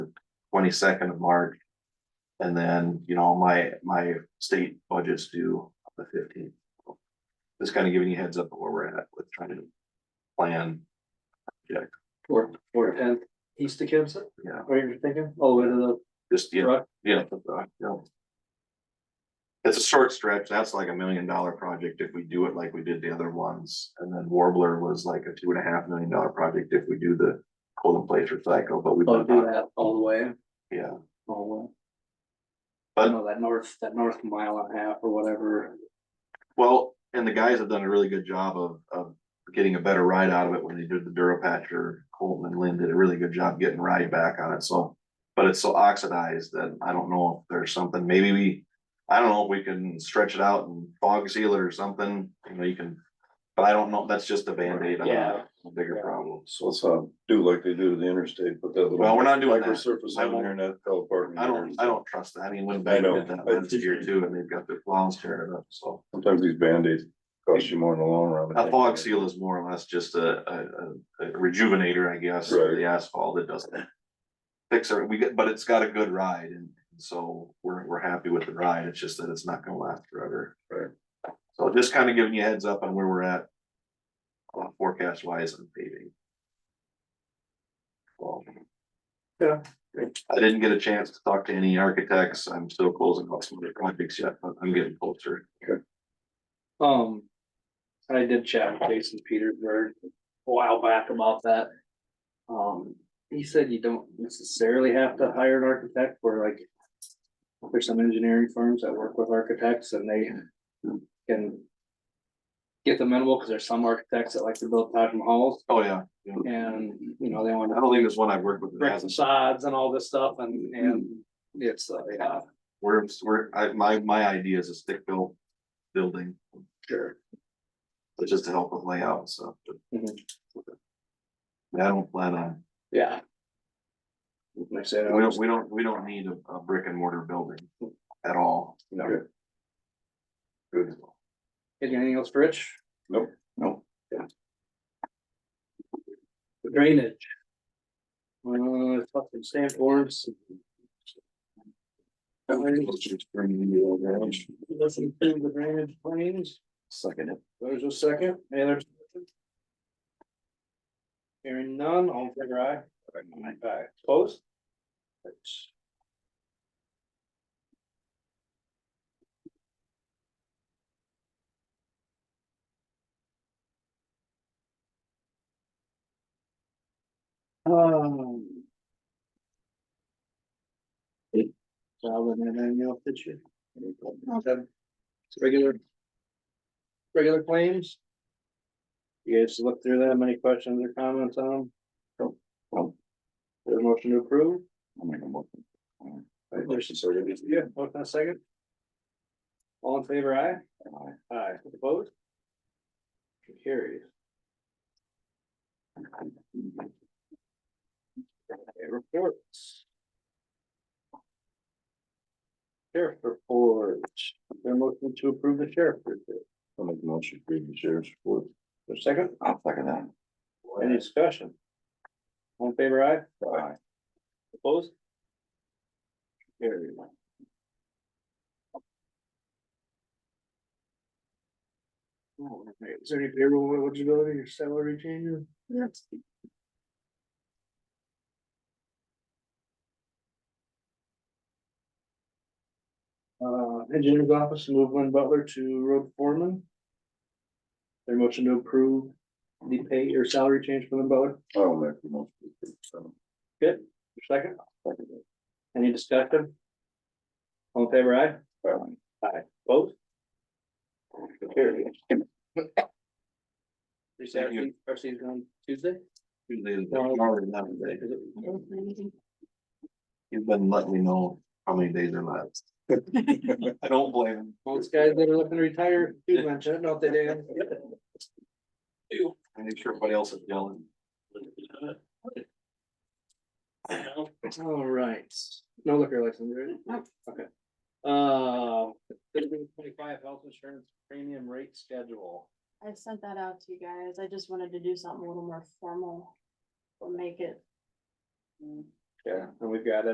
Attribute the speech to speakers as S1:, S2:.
S1: twenty-second of March. And then, you know, my, my state budget's due on the fifteenth. Just kind of giving you heads up of where we're at with trying to plan,
S2: Or, or tenth, east of Kansas,
S1: yeah,
S2: or you're thinking, all the way to
S1: just,
S2: the
S1: yeah,
S2: rock,
S1: yeah. that's right, yeah. uh, It's a short stretch, that's like a million dollar project if we do it like we did the other ones, and then Warbler was like a two and a half million dollar project if we do the cold and place recycle, but we've
S2: oh, do
S1: done,
S2: that all the way,
S1: yeah.
S2: all the way.
S1: But-
S2: You know, that north, that north mile and a half or whatever,
S1: Well, and the guys have done a really good job of, of getting a better ride out of it when they did the Durapatcher. Colton and Lynn did a really good job getting ride back on it, so. But it's so oxidized that I don't know if there's something, maybe we, I don't know, if we can stretch it out and fog seal it or something, you know, you can. But I don't know, that's just a Band-Aid on
S2: Yeah.
S1: a bigger problem.
S3: So let's uh do like they do to the interstate, put that little.
S1: Well, we're not doing that.
S3: Surface
S1: I
S3: on there and that fell apart.
S1: I don't, I don't trust that, I mean, when
S3: I
S1: Beck
S3: know.
S1: did that last year too, and they've got their plows tearing up, so.
S3: Sometimes these Band-Aids cost you more in the long run.
S1: A fog seal is more or less just a, a, a- a rejuvenator, I guess, for
S3: Right.
S1: the asphalt, it doesn't. Fix it, we get, but it's got a good ride, and so we're, we're happy with the ride, it's just that it's not gonna last forever.
S3: Right.
S1: So just kind of giving you a heads up on where we're at. uh, Forecast wise and paving. Well,
S2: Yeah.
S1: I didn't get a chance to talk to any architects, I'm still closing out some of the projects yet, but I'm getting closer.
S2: um. I did chat with Jason Petersburg a while back about that. Um, he said you don't necessarily have to hire an architect, where like. There's some engineering firms that work with architects and they can. Get them minimal, because there's some architects that like to build Taj Mahals,
S1: Oh, yeah, yeah.
S2: And, you know, they want
S1: I don't think there's one I've worked with that
S2: brick
S1: hasn't
S2: facades and all this stuff and, and it's, uh, yeah,
S1: We're, we're, I, my, my idea is a stick built building,
S2: sure.
S1: but just to help with layout and stuff. but-
S2: Mhm.
S1: I don't plan on,
S2: Yeah. Like I said, I
S1: we don't,
S2: was-
S1: we don't, we don't need a, a brick and mortar building
S2: Mm.
S1: at all.
S2: no.
S3: Okay. Good.
S2: Anything else, for Rich?
S3: Nope.
S1: Nope.
S2: Yeah. Drainage. Uh, fucking stamp forms. Listen to the drainage claims.
S1: Second.
S2: There's a second, any other? discussion? Hearing none, all in favor aye. Aye, opposed? Um. Well, and then any else that you? Okay. Regular. Regular claims? You guys look through them, any questions or comments on them? There's a motion to approve? Yeah, motion and a second. All in favor, aye? Aye. Aye, opposed? Motion Carries. Okay, Reports. Sheriff report, their motion to approve the sheriff report,
S3: I'll make a motion for the sheriff's report.
S2: for a second,
S3: I'll second that.
S2: any discussion? All in favor, aye?
S3: Aye.
S2: Opposed? Carried. All right, Is there any payroll eligibility or salary changes? Yes. Uh, engineer's office, move Lynn Butler to road foreman. Their motion to approve the pay or salary change for Lynn Butler,
S3: I'll make the motion. So,
S2: second?
S3: second
S2: Any discussion? All in favor, aye?
S3: that. Aye.
S2: Vote. Carry. Is
S1: Thank you.
S2: RC's on Tuesday? Is it-
S1: Mm. You've been letting me know how many days are left. I don't blame him.
S2: Those guys that are looking to retire, do mention it, don't they, Dan?
S1: I make sure everybody else is yelling.
S2: All right, no liquor license, right? Okay. Uh, thirteen twenty-five health insurance premium rate schedule.
S4: I sent that out to you guys. I just wanted to do something a little more formal. Or make it
S2: Yeah. And we've got a